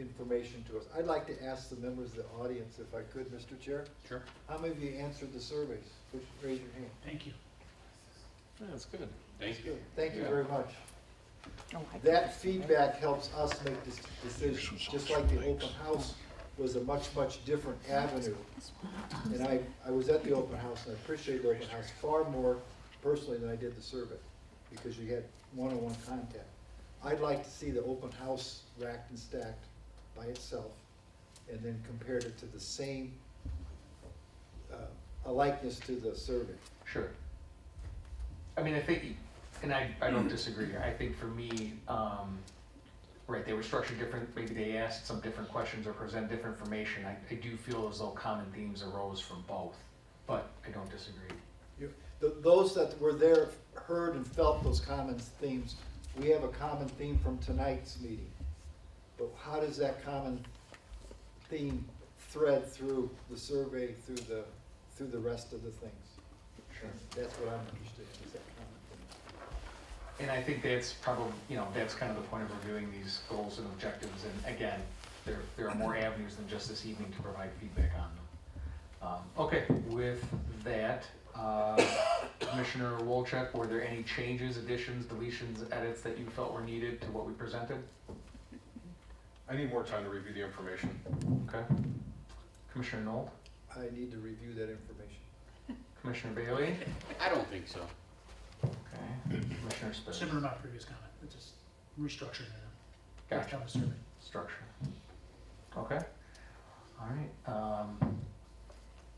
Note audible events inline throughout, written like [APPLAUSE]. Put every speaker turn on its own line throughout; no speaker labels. information to us. I'd like to ask the members of the audience, if I could, Mr. Chair,
Sure.
how many of you answered the surveys? Would you Raise your hand.
Thank you.
That's good.
Thank you.
Thank you very much.
Oh, I can
That
see it.
feedback helps us make this decision, just like the open house was a much, much different avenue. And I, I was at the open house and I appreciated the open house far more personally than I did the survey, because you had one-on-one contact. I'd like to see the open house racked and stacked by itself, and then compared it to the same, uh, a likeness to the survey.
Sure. I mean, I think, and I, I don't disagree, I think for me, um, right, they were structured different, maybe they asked some different questions or presented different information, I, I do feel as though common themes arose from both, but I don't disagree.
You- th- Those that were there heard and felt those common themes. We have a common theme from tonight's meeting. But how does that common theme thread through the survey, through the, through the rest of the things? That's what I'm interested in, is that common theme.
And I think that's probably, you know, that's kind of the point of reviewing these goals and objectives, and again, there, there are more avenues than just this evening to provide feedback on them. Um, okay, with that, uh, Commissioner Wolchek, were there any changes, additions, deletions, edits that you felt were needed to what we presented?
I need more time to review the information.
Okay. Commissioner Knoll,
I need to review that information.
Commissioner Bailey,
I don't think so.
okay, Commissioner Spitz,
Similar to my previous comment, it's just restructuring it.
Gotcha.
Kind of survey.
structure. Okay, all right. Um,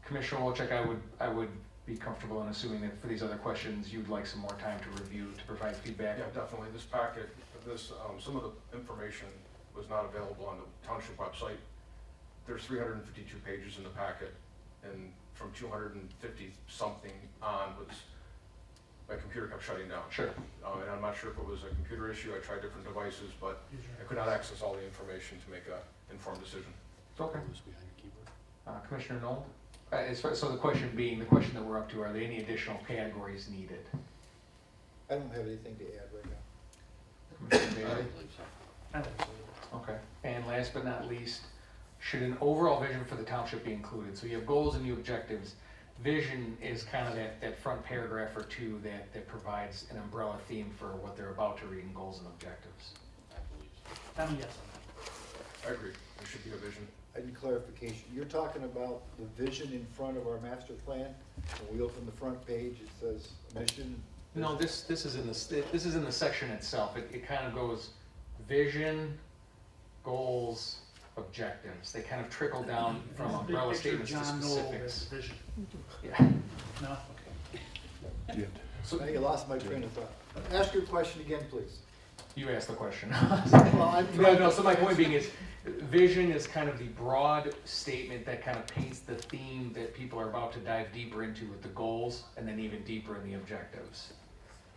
Commissioner Wolchek, I would, I would be comfortable in assuming that for these other questions, you'd like some more time to review, to provide feedback.
Yeah, definitely, this packet, this, um, some of the information was not available on the township website. There's three hundred and fifty-two pages in the packet, and from two hundred and fifty something on was, my computer kept shutting down.
Sure,
Um, and I'm not sure if it was a computer issue, I tried different devices, but I could not access all the information to make a informed decision.
It's okay.
Who's behind the keyboard?
Uh, Commissioner Knoll? Uh, as far- So the question being, the question that we're up to, are there any additional categories needed?
I don't have anything to add right now.
Commissioner
I
Bailey?
don't believe so.
I don't think so.
Okay. And last but not least, should an overall vision for the township be included? So you have goals and you have objectives. Vision is kind of that, that front paragraph or two that, that provides an umbrella theme for what they're about to read in goals and objectives.
I believe so.
I'm a yes on
I agree, there should be a vision.
I need clarification. You're talking about the vision in front of our master plan. When we open the front page, it says mission.
No, this, this is in the, s- this is in the section itself. It, it kind of goes vision, goals, objectives. They kind of trickle down
that.
from
It's a big
umbrella
picture of
statements to
John Knoll with
specifics.
Vision.
Yeah.
No, okay.
Now you lost my train of thought. Ask your question again, please.
You asked the question.
Well, I'm
[LAUGHS] No, no, so my point being is, vision is kind of the broad statement that kind of paints the theme that people are about to dive deeper into with the goals, and then even deeper in the objectives.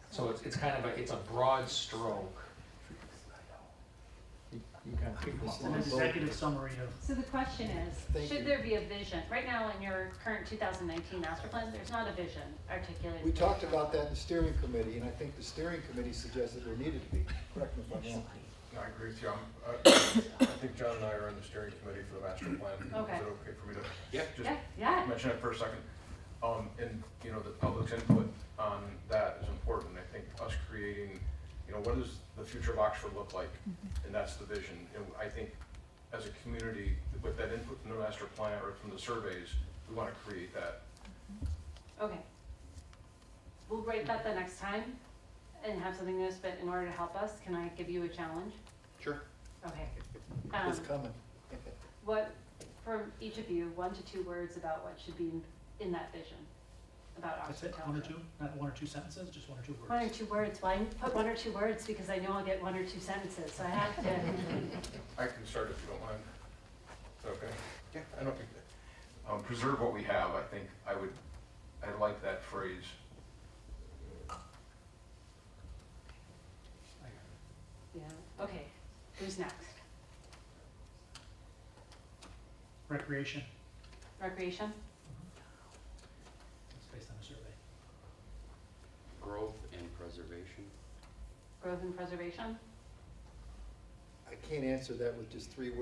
So it's, it's kind of a, it's a broad stroke. You you kind of pick them
It's
up
an
on both.
executive summary of
So the question
Thank
is,
you.
should there be a vision? Right now in your current 2019 master plan, there's not a vision articulated.
We talked about that in the steering committee, and I think the steering committee suggested there needed to be. Correct me if I'm wrong.
No, I agree with you, I'm, uh, [COUGHS] I, I think John and I are on the steering committee for the master plan.
Okay.
Is it okay for me to?
Yeah.
Just
Yeah, yeah.
mention it for a second. Um, and, you know, the public's input on that is important. I think us creating, you know, what does the future of Oxford look like? And that's the vision. And I think as a community, with that input from the master plan or from the surveys, we want to create that.
Okay. We'll write that the next time and have something new, but in order to help us, can I give you a challenge?
Sure.
Okay.
It's
Um,
coming. [LAUGHS]
What, from each of you, one to two words about what should be in- in that vision about
That's
Oxford
it, one or
Township.
two, not one or two sentences, just one or two words.
One or two words. Well, I put one or two words because I know I'll get one or two sentences, so I have to.
I can start if you don't mind. Is that okay? Yeah. I don't think, um, preserve what we have, I think I would, I like that phrase.
Yeah, okay. Who's next?
Recreation,
Recreation?
it's based on a survey.
Growth and preservation.
Growth and preservation?
I can't answer that with just three words.